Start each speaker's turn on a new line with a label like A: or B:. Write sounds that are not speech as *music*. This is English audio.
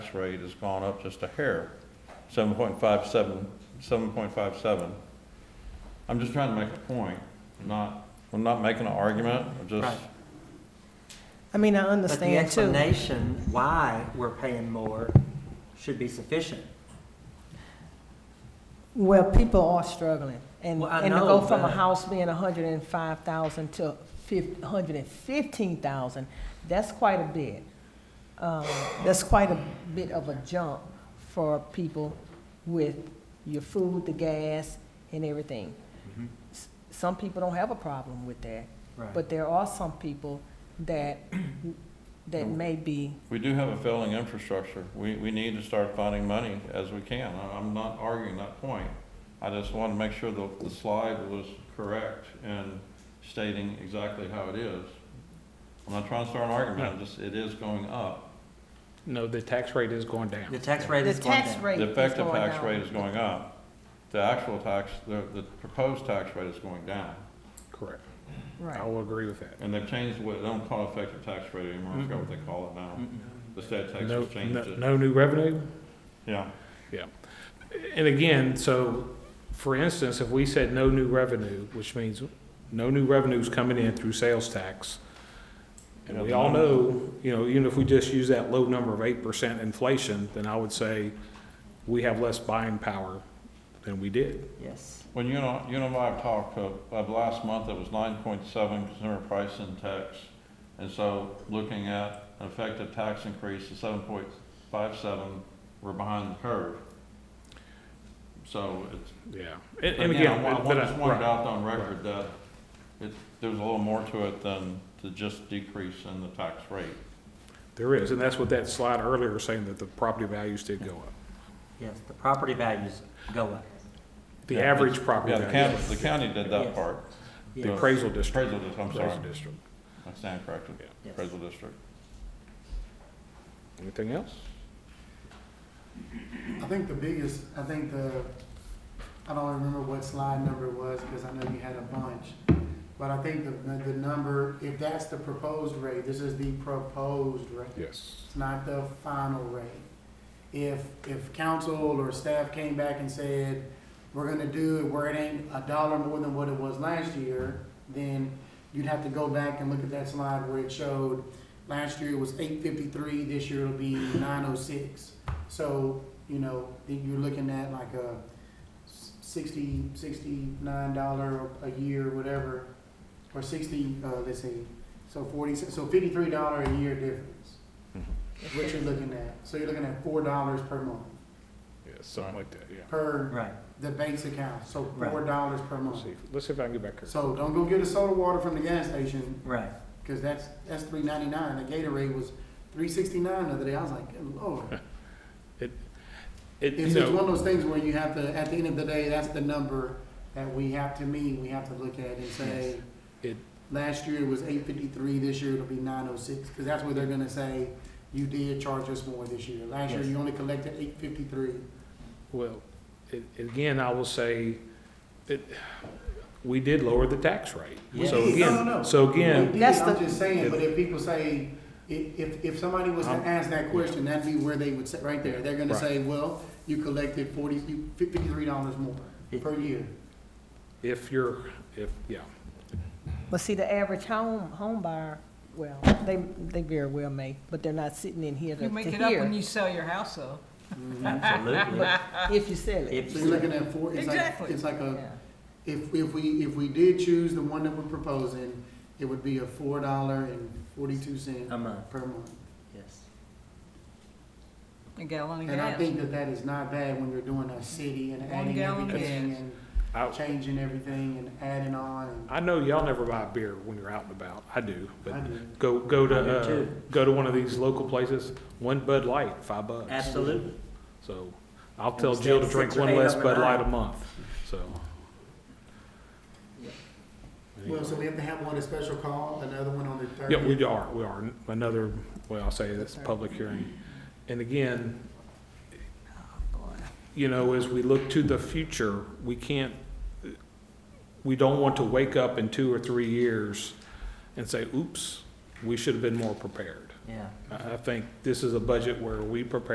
A: tax rate has gone up just a hair, seven point five seven, seven point five seven. I'm just trying to make a point, not, I'm not making an argument, I'm just,
B: Right.
C: I mean, I
B: But the
C: understand too.
B: explanation why we're paying more should be sufficient.
C: Well, people are struggling, and,
B: Well, I
C: and to go
B: know,
C: from a
B: but-
C: house being a hundred and five thousand to fif- hundred and fifteen thousand, that's quite a bit. Um, that's quite a bit of a jump for people with your food, the gas, and everything.
B: Mhm.
C: S- Some people don't have a problem with that,
B: Right.
C: Mm-hmm. but there are some people that, that may be,
A: we do have a failing infrastructure. We, we need to start finding money as we can. I- I'm not arguing that point. I just wanted to make sure the, the slide was correct in stating exactly how it is. I'm not trying to start an argument, I'm just, it is going up.
D: No, the tax rate is going down.
B: The tax rate
C: the
B: is going
C: tax
B: down.
C: rate
A: The
C: is
A: effective
C: going
A: tax
C: down.
A: rate is going up. The actual tax, the, the proposed tax rate is going down.
D: Correct. I
C: Right,
D: will agree with that.
A: And they've changed what, they don't call it effective tax rate anymore, I forgot what they call it now.
B: Mm-mm.
A: The state tax
D: Mm-hmm. No,
A: has changed
D: no,
A: it.
D: no new revenue?
A: Yeah,
D: And again, so, for instance, if we said no new revenue, which means no new revenue's coming in through sales tax, and we all know, you know, even if we just use that low number of eight percent inflation, then I would say we have less buying power than we did.
B: Yes.
A: when you know, you and I have talked, uh, of last month, it was nine point seven consumer price index. And so looking at an effective tax increase of seven point five seven, we're behind the curve. So it's,
D: Yeah. And,
A: But
D: and
A: again,
D: again,
A: I want-
D: but
A: I
D: I-
A: just wanted
D: right.
A: out on record that it, there's a little more to it than to just decrease in the tax rate.
D: There is, and that's what that slide earlier saying that the property values did go up.
B: Yes, the property values go up.
D: The
A: Yeah,
D: average property
A: Yeah, the
D: value,
A: county, the county did that
B: Yes.
A: part,
D: the
B: Yes.
D: appraisal district.
A: appraisal district, I'm sorry,
D: Appraisal district.
A: I stand corrected,
B: Yes.
A: appraisal district.
D: Anything else?
E: I think the biggest, I think the, I don't remember what slide number it was, because I know you had a bunch. But I think the, the number, if that's the proposed rate, this is the proposed rate.
D: Yes.
E: It's not the final rate. If, if council or staff came back and said, we're gonna do it where it ain't a dollar more than what it was last year, then you'd have to go back and look at that slide where it showed, last year it was eight fifty-three, this year it'll be nine oh six. So, you know, then you're looking at like a s- sixty, sixty-nine dollar a year, whatever, or sixty, uh, let's see, so forty, so fifty-three dollar a year difference what you're looking at. So you're looking at four dollars per month,
D: Yeah, something like that, yeah.
E: per
B: Right.
E: the bank's account, so
B: Right.
E: four dollars per
D: Let's
E: month.
D: see, if- let's see if I can get back here.
E: So don't go get a soda water from the gas station,
C: *laughs*
B: Right.
E: cause that's, that's three ninety-nine, the Gatorade was three sixty-nine the other day, I was like, good lord.
D: It, you
E: It's, it's one
D: know,
E: of those things where you have to, at the end of the day, that's the number that we have to meet, we have to look at and say,
D: It-
E: last year it was eight fifty-three, this year it'll be nine oh six, cause that's what they're gonna say, you did charge us more this year. Last year
B: Yes.
E: you only collected eight fifty-three.
D: well, it, again, I will say, it, we did lower the tax rate.
B: Yes.
D: So
B: No,
E: no, no.
D: again, so
E: We
D: again,
E: did,
C: That's
E: I'm
C: the-
E: just saying,
D: Yeah.
E: but if people say, if, if, if somebody was to
A: I'm-
E: ask that question, that'd be where they would sit, right there. They're gonna
D: Right.
E: say, well, you collected forty, you- fifty-three dollars more per year.
D: if you're, if, yeah,
C: But see, the average home, home buyer, well, they, they very well may, but they're not sitting in here to
F: You
C: to
F: make it up when
C: hear
F: you sell your house, though.
B: Absolutely.
C: if you sell it.
B: If
E: So you're looking at four, it's like,
F: Exactly.
E: it's like a,
C: Yeah.
E: if, if we, if we did choose the one that we're proposing, it would be a four dollar and forty-two cent
D: Um,
B: a month,
E: per month.
B: yes.
F: A gallon of
E: And I
F: gas.
E: think that that is not bad when you're doing a city and
F: One
E: adding
F: gallon of
E: everything
F: gas.
E: and
D: I,
E: changing everything and adding on and.
D: I know y'all never buy beer when you're out and about, I do,
E: I
D: but
E: do.
D: go, go
B: I do
D: to, uh,
B: too.
D: go to one of these local places, one Bud Light, five bucks.
B: Absolutely.
D: So I'll tell
B: Instead
D: Jill to
B: of
D: drink
B: six or
D: one
B: eight
D: less
B: of them
D: Bud Light a
B: out.
D: month, so.
E: Well, so we have to have one a special call, another one on the third.
D: Yeah, we are, we are. Another, well, I'll say it's public hearing. And again, you know, as we look to the future, we can't, we don't want to wake up in two or three years and say, oops, we should have been more prepared.
B: Yeah.
D: I, I think this is a budget where we prepare